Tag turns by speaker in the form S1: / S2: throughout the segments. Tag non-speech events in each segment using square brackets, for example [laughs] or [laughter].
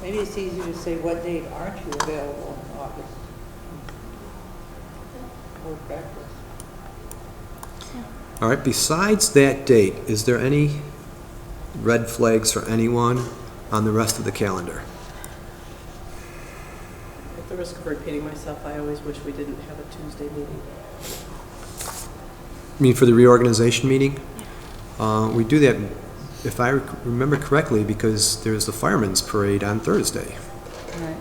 S1: Maybe it's easier to say what date aren't you available in August?
S2: Hmm.
S1: Work backwards.
S3: All right, besides that date, is there any red flags for anyone on the rest of the calendar?
S2: At the risk of repeating myself, I always wish we didn't have a Tuesday meeting.
S3: I mean, for the reorganization meeting? Uh, We do that, if I rec- remember correctly, because there's the firemen's parade on Thursday.
S1: Right.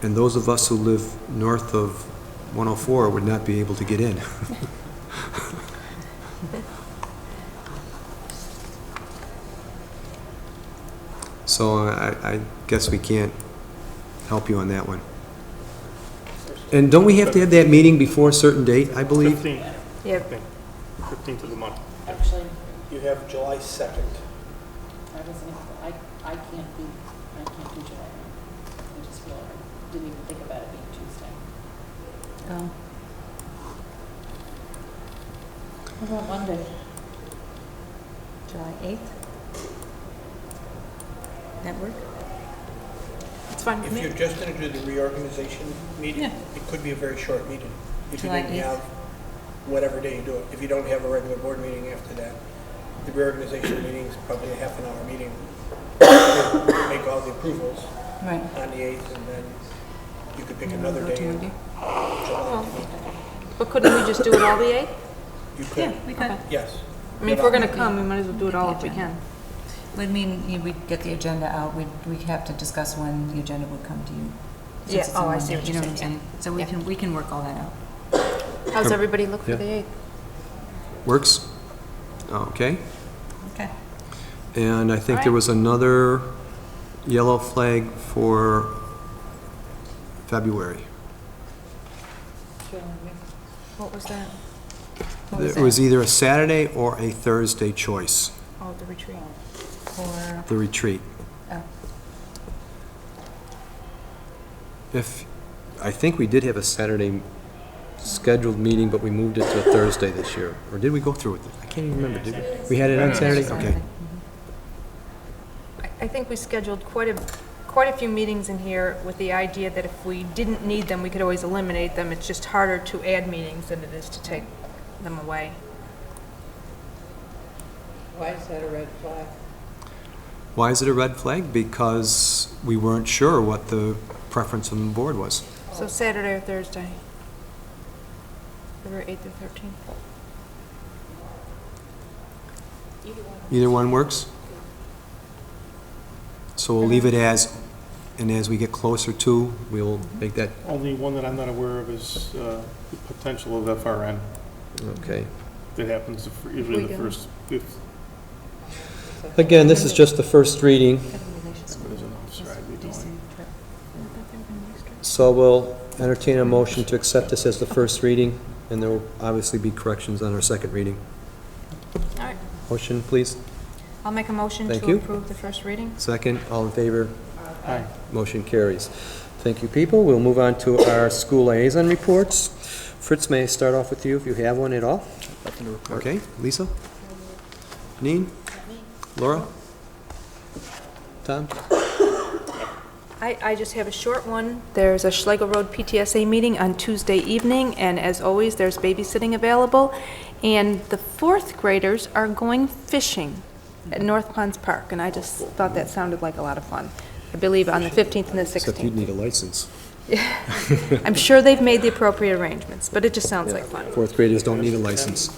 S3: And those of us who live north of 104 would not be able to get in. [laughs] So I, I guess we can't help you on that one. And don't we have to have that meeting before a certain date, I believe?
S4: Fifteenth,
S5: Yep.
S4: fifteenth of the month.
S6: Actually,
S7: You have July 2nd.
S6: I wasn't, I, I can't be, I can't do July. I just feel, I didn't even think about it being Tuesday.
S5: Oh.
S6: What about Monday?
S5: July 8th? That work?
S8: It's
S5: Oh,
S8: fine with
S7: If
S8: me.
S7: you're just going to do the reorganization meeting, it could be a very short meeting. If you
S5: July
S7: didn't
S5: 8th.
S7: have whatever day you do it. If you don't have a regular board meeting after that, the reorganization meeting is probably a half an hour meeting. [coughs] You Make all the approvals
S5: Right.
S7: on the 8th, and then you could pick another day in July.
S8: But couldn't we just do it all the 8th?
S7: You could,
S5: we could.
S7: yes.
S8: I mean, if we're going to come, we might as well do it all if we can.
S5: Would mean you- we'd get the agenda out, we'd, we'd have to discuss when the agenda would come to you. since
S8: Yeah,
S5: it's on
S8: oh, I see
S5: Monday,
S8: what
S5: you
S8: you're
S5: know
S8: saying,
S5: I'm So we can, we can work all that out.
S8: How's everybody look for
S3: Yeah.
S8: the 8th?
S3: Works? Okay.
S5: Okay.
S3: And I think there was another yellow flag for February.
S8: What was that?
S5: What was
S3: It was
S5: that?
S3: either a Saturday or a Thursday choice,
S8: Oh, the retreat.
S5: For,
S3: the retreat.
S5: oh,
S3: If, I think we did have a Saturday scheduled meeting, but we moved it to a Thursday this year. Or did we go through with it? I can't even remember, did we? We had it on Saturday? Okay.
S8: I- I think we scheduled quite a, quite a few meetings in here with the idea that if we didn't need them, we could always eliminate them. It's just harder to add meetings than it is to take them away.
S1: Why is that a red flag?
S3: Why is it a red flag? Because we weren't sure what the preference on the board was.
S8: So Saturday or Thursday? February 8th or 13th?
S3: Either one works? So we'll leave it as, and as we get closer to, we'll make that,
S4: Only one that I'm not aware of is uh, the potential of FRN.
S3: okay.
S4: That happens the fir- usually the
S8: Weekend.
S4: first, if,
S3: Again, this is just the first reading,
S4: there's an officer, I'd be going.
S3: so we'll entertain a motion to accept this as the first reading, and there will obviously be corrections on our second reading.
S8: All right,
S3: Motion, please.
S8: I'll make a motion
S3: Thank
S8: to
S3: you.
S8: approve the first reading.
S3: Second, all in favor?
S4: Aye.
S3: Motion carries. Thank you, people. We'll move on to our school liaison reports. Fritz, may I start off with you, if you have one at all? Okay, Lisa? Janine? Laura? Tom?
S8: I, I just have a short one. There's a Schlegel Road PTSA meeting on Tuesday evening, and as always, there's babysitting available. And the fourth graders are going fishing at North Ponds Park, and I just thought that sounded like a lot of fun. I believe on the 15th and the
S3: Except you'd
S8: 16th.
S3: need a license.
S8: I'm sure they've made the appropriate arrangements, but it just sounds like fun.
S3: Fourth graders don't need a license.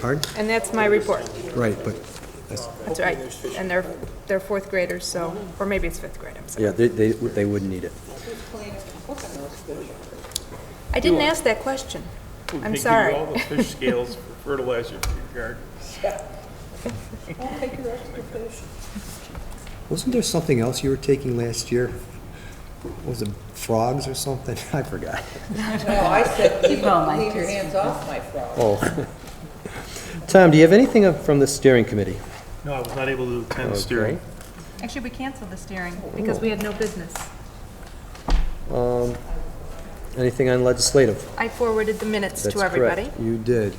S3: Pardon?
S8: And that's my report.
S3: Right, but,
S8: That's right. And they're, they're fourth graders, so, or maybe it's fifth grade, I'm sorry.
S3: yeah, they, they they wouldn't need it.
S8: I didn't ask that question.
S4: We could
S8: I'm
S4: give you
S8: sorry.
S4: all the fish scales for fertilizer for your garden.
S3: Wasn't there something else you were taking last year? Was it frogs or something? [laughs] I forgot.
S1: No, I said, keep,
S5: going, Mike.
S1: leave your hands off my frog.
S3: Oh. Tom, do you have anything up from the steering committee?
S4: No, I was not able to attend the steering.
S3: Okay.
S8: [laughs] Actually, we canceled the steering because we had no business.
S3: Um, Anything on legislative?
S8: I forwarded the minutes
S3: That's
S8: to
S3: correct.
S8: everybody.
S3: You did.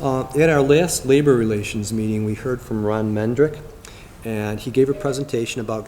S3: Uh, At our last labor relations meeting, we heard from Ron Mendrick, and he gave a presentation about